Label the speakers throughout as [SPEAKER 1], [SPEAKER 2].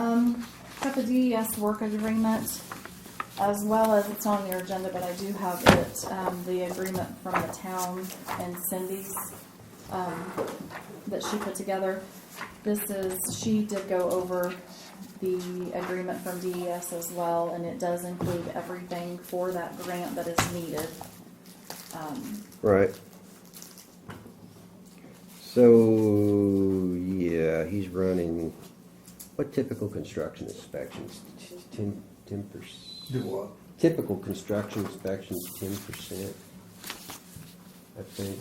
[SPEAKER 1] Um, the DES work agreement as well as it's on your agenda, but I do have it, um, the agreement from the town and Cindy's, um, that she put together. This is, she did go over the agreement from DES as well, and it does include everything for that grant that is needed. Um,
[SPEAKER 2] Right. So, yeah, he's running, what typical construction inspections? Ten, ten
[SPEAKER 3] Do
[SPEAKER 2] percent?
[SPEAKER 3] what?
[SPEAKER 2] Typical construction inspections, ten percent, I think.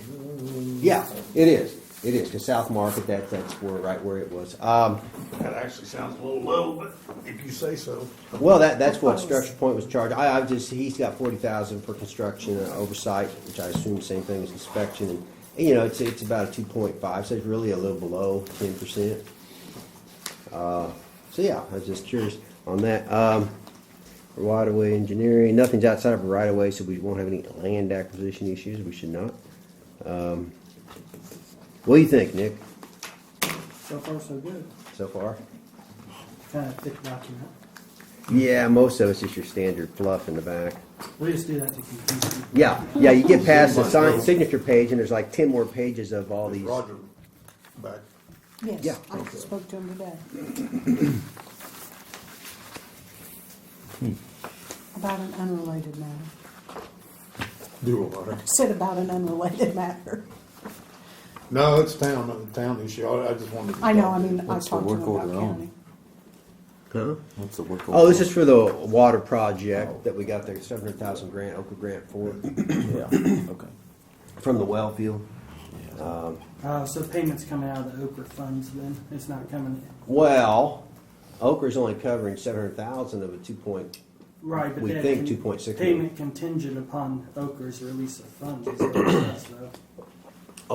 [SPEAKER 2] Yeah, it is, it is, because South Market, that, that's where, right where it was. Um,
[SPEAKER 3] That actually sounds a little low, but if you say so.
[SPEAKER 2] Well, that, that's what Structure Point was charged. I, I've just, he's got forty thousand for construction and oversight, which I assume same thing as inspection. And, you know, it's, it's about a two point five, so it's really a little below ten percent. Uh, So yeah, I was just curious on that. Um, right of way engineering, nothing's outside of a right of way, so we won't have any land acquisition issues. We should not. Um, what do you think, Nick,
[SPEAKER 4] So far, so good.
[SPEAKER 2] so far?
[SPEAKER 4] Kind of thick document.
[SPEAKER 2] Yeah, most of it's just your standard fluff in the back.
[SPEAKER 4] We just do that to confuse people.
[SPEAKER 2] Yeah, yeah, you get past the
[SPEAKER 3] Sign
[SPEAKER 2] sign,
[SPEAKER 3] those.
[SPEAKER 2] signature page, and there's like ten more pages of all
[SPEAKER 3] Is
[SPEAKER 2] these.
[SPEAKER 3] Roger back?
[SPEAKER 2] Yeah.
[SPEAKER 5] Yes, I spoke to him today.
[SPEAKER 6] Hmm.
[SPEAKER 5] About an unrelated matter.
[SPEAKER 3] Do a letter.
[SPEAKER 5] Said about an unrelated matter.
[SPEAKER 3] No, it's town, uh, town issue. I I just wanted to.
[SPEAKER 5] I know, I mean, I
[SPEAKER 6] What's the
[SPEAKER 5] talked to him
[SPEAKER 6] work
[SPEAKER 5] about
[SPEAKER 6] order on?
[SPEAKER 5] county.
[SPEAKER 2] Huh?
[SPEAKER 6] What's the work?
[SPEAKER 2] Oh, this is for the water project that we got the seven hundred thousand grant, Oka grant for,
[SPEAKER 6] Yeah, okay.
[SPEAKER 2] from the well field.
[SPEAKER 4] Uh, so payments coming out of the Oprah funds then? It's not coming,
[SPEAKER 2] Well, Oka's only covering seven hundred thousand of a two point,
[SPEAKER 4] right, but
[SPEAKER 2] We
[SPEAKER 4] that.
[SPEAKER 2] think
[SPEAKER 4] con-
[SPEAKER 2] 2.6
[SPEAKER 4] Payment contingent upon Okra's release of funds is what it says though.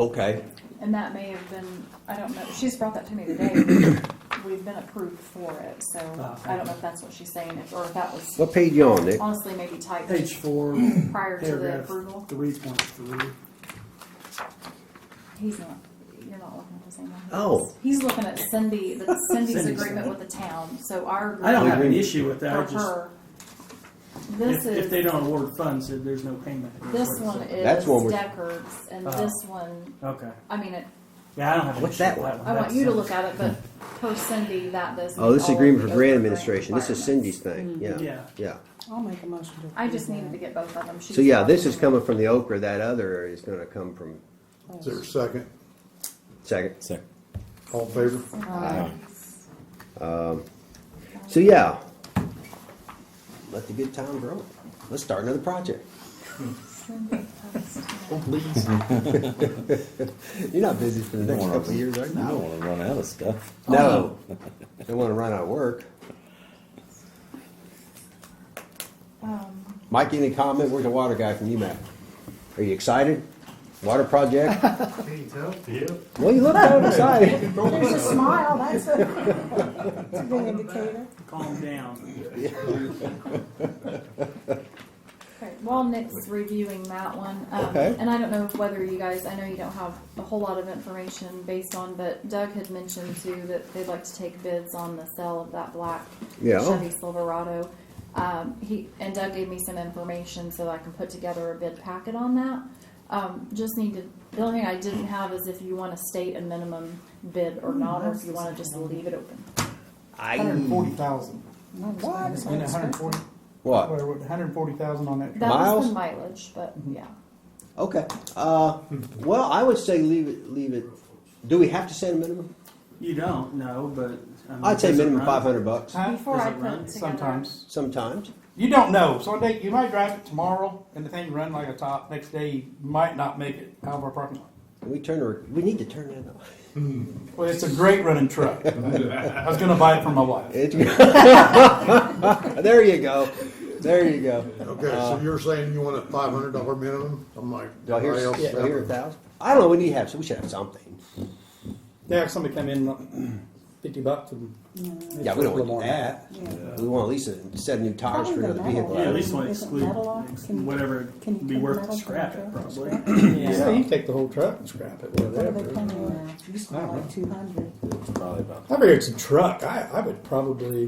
[SPEAKER 2] okay.
[SPEAKER 1] And that may have been, I don't know, she's brought that to me today. We've been approved for it, so I don't know if that's what she's saying, if- or if that was
[SPEAKER 2] What page you on, Nick?
[SPEAKER 1] honestly maybe typed
[SPEAKER 4] Page four,
[SPEAKER 1] prior to the
[SPEAKER 4] paragraph
[SPEAKER 1] approval.
[SPEAKER 4] three point three.
[SPEAKER 1] He's not. You're not looking at the same one. he
[SPEAKER 2] Oh.
[SPEAKER 1] is. He's looking at Cindy, the Cindy's
[SPEAKER 4] Cindy's
[SPEAKER 1] agreement
[SPEAKER 4] one.
[SPEAKER 1] with the town, so our
[SPEAKER 4] I don't
[SPEAKER 1] agreement
[SPEAKER 4] have an issue with
[SPEAKER 1] for
[SPEAKER 4] that, I just,
[SPEAKER 1] her. This
[SPEAKER 4] if, if they
[SPEAKER 1] is,
[SPEAKER 4] don't award funds, then there's no payment.
[SPEAKER 1] this one is
[SPEAKER 2] That's one we're-
[SPEAKER 1] Deckard's, and
[SPEAKER 4] Oh.
[SPEAKER 1] this one,
[SPEAKER 4] Okay,
[SPEAKER 1] I mean, it-
[SPEAKER 4] yeah, I don't have an issue
[SPEAKER 2] What's
[SPEAKER 4] with
[SPEAKER 2] that
[SPEAKER 4] that one.
[SPEAKER 2] one?
[SPEAKER 1] I want
[SPEAKER 4] That's-
[SPEAKER 1] you to look at it, but per Cindy, that does.
[SPEAKER 2] Oh, this
[SPEAKER 1] meet all of
[SPEAKER 2] agreement for
[SPEAKER 1] the
[SPEAKER 2] grant
[SPEAKER 1] other
[SPEAKER 2] administration, this is Cindy's
[SPEAKER 1] requirements.
[SPEAKER 2] thing, yeah,
[SPEAKER 4] Yeah.
[SPEAKER 2] yeah.
[SPEAKER 5] I'll make a motion to.
[SPEAKER 1] I just
[SPEAKER 5] approve
[SPEAKER 1] needed to get
[SPEAKER 5] that.
[SPEAKER 1] both of them.
[SPEAKER 2] So yeah, this is coming from the Oka, that other is gonna come from,
[SPEAKER 3] Is there a second?
[SPEAKER 2] second.
[SPEAKER 6] Second.
[SPEAKER 3] All in favor?
[SPEAKER 5] Uh,
[SPEAKER 2] So yeah, let the good time grow. Let's start another project.
[SPEAKER 6] Please.
[SPEAKER 2] You're not busy for the
[SPEAKER 6] You don't
[SPEAKER 2] next
[SPEAKER 6] wanna-
[SPEAKER 2] couple of years, are
[SPEAKER 6] You
[SPEAKER 2] you?
[SPEAKER 6] don't wanna run out of stuff.
[SPEAKER 2] No,
[SPEAKER 6] Uh-huh.
[SPEAKER 2] don't want to run out of work.
[SPEAKER 1] Um,
[SPEAKER 2] Mike, any comment? Where's the water guy from UMass? Are you excited? Water project? Well, you look kind of excited.
[SPEAKER 5] There's a smile, that's a, that's a good indicator.
[SPEAKER 4] Calm down.
[SPEAKER 1] Okay, while Nick's reviewing that one, um,
[SPEAKER 2] Okay.
[SPEAKER 1] and I don't know whether you guys, I know you don't have a whole lot of information based on, but Doug had mentioned too that they'd like to take bids on the sale of that black
[SPEAKER 2] Yeah.
[SPEAKER 1] Chevy Silverado. Um, he, and Doug gave me some information so I can put together a bid packet on that. Um, just need to, the only thing I didn't have is if you wanna state a minimum bid or not, or if you wanna just leave it open.
[SPEAKER 7] Hundred and forty thousand.
[SPEAKER 5] What?
[SPEAKER 7] Isn't it hundred and forty?
[SPEAKER 2] What?
[SPEAKER 7] Hundred and forty thousand on that.
[SPEAKER 1] That was
[SPEAKER 2] Miles?
[SPEAKER 1] the mileage, but yeah.
[SPEAKER 2] Okay. Uh, well, I would say leave it. Leave it. Do we have to set a minimum?
[SPEAKER 4] You don't, no, but. I mean,
[SPEAKER 2] I'd say
[SPEAKER 4] does it
[SPEAKER 2] minimum
[SPEAKER 4] run?
[SPEAKER 2] five hundred bucks.
[SPEAKER 7] Huh?
[SPEAKER 1] Before
[SPEAKER 4] Does
[SPEAKER 1] I
[SPEAKER 4] it
[SPEAKER 1] put
[SPEAKER 4] run?
[SPEAKER 1] it together.
[SPEAKER 7] Sometimes.
[SPEAKER 2] Sometimes.
[SPEAKER 7] You don't know. So day, you might drive it tomorrow and the thing run like a top. Next day, you might not make it out of our parking lot.
[SPEAKER 2] We turn. Our, we need to turn that off.
[SPEAKER 7] Well, it's a great running truck. I was gonna buy it for my wife.
[SPEAKER 2] It- there you go. There you go.
[SPEAKER 3] Okay, so you're saying you want a five hundred dollar minimum? I'm like,
[SPEAKER 2] Do I hear,
[SPEAKER 3] everybody else
[SPEAKER 2] do I hear a
[SPEAKER 3] have
[SPEAKER 2] thousand? I don't know. We need to have. We should have something.
[SPEAKER 7] They have somebody come in, like, fifty bucks and.
[SPEAKER 2] Yeah, we don't want to do
[SPEAKER 7] Little more.
[SPEAKER 2] that.
[SPEAKER 5] Yeah.
[SPEAKER 2] We want at least a set of new tires
[SPEAKER 5] Probably
[SPEAKER 2] for
[SPEAKER 5] the
[SPEAKER 2] another
[SPEAKER 5] metal.
[SPEAKER 2] vehicle.
[SPEAKER 4] Yeah, at least want to
[SPEAKER 5] Isn't
[SPEAKER 4] exclude
[SPEAKER 5] metal locks? Can-
[SPEAKER 4] whatever
[SPEAKER 5] can you
[SPEAKER 4] be
[SPEAKER 5] take
[SPEAKER 4] worth
[SPEAKER 5] metal
[SPEAKER 4] to scrap
[SPEAKER 5] from
[SPEAKER 4] it,
[SPEAKER 5] a truck and
[SPEAKER 4] probably.
[SPEAKER 5] scrap
[SPEAKER 7] Yeah, you can take the whole truck and scrap it,
[SPEAKER 5] What are they
[SPEAKER 7] whatever.
[SPEAKER 5] coming with? Used to be like two hundred.
[SPEAKER 6] Probably about
[SPEAKER 7] I figure it's a truck. I, I would probably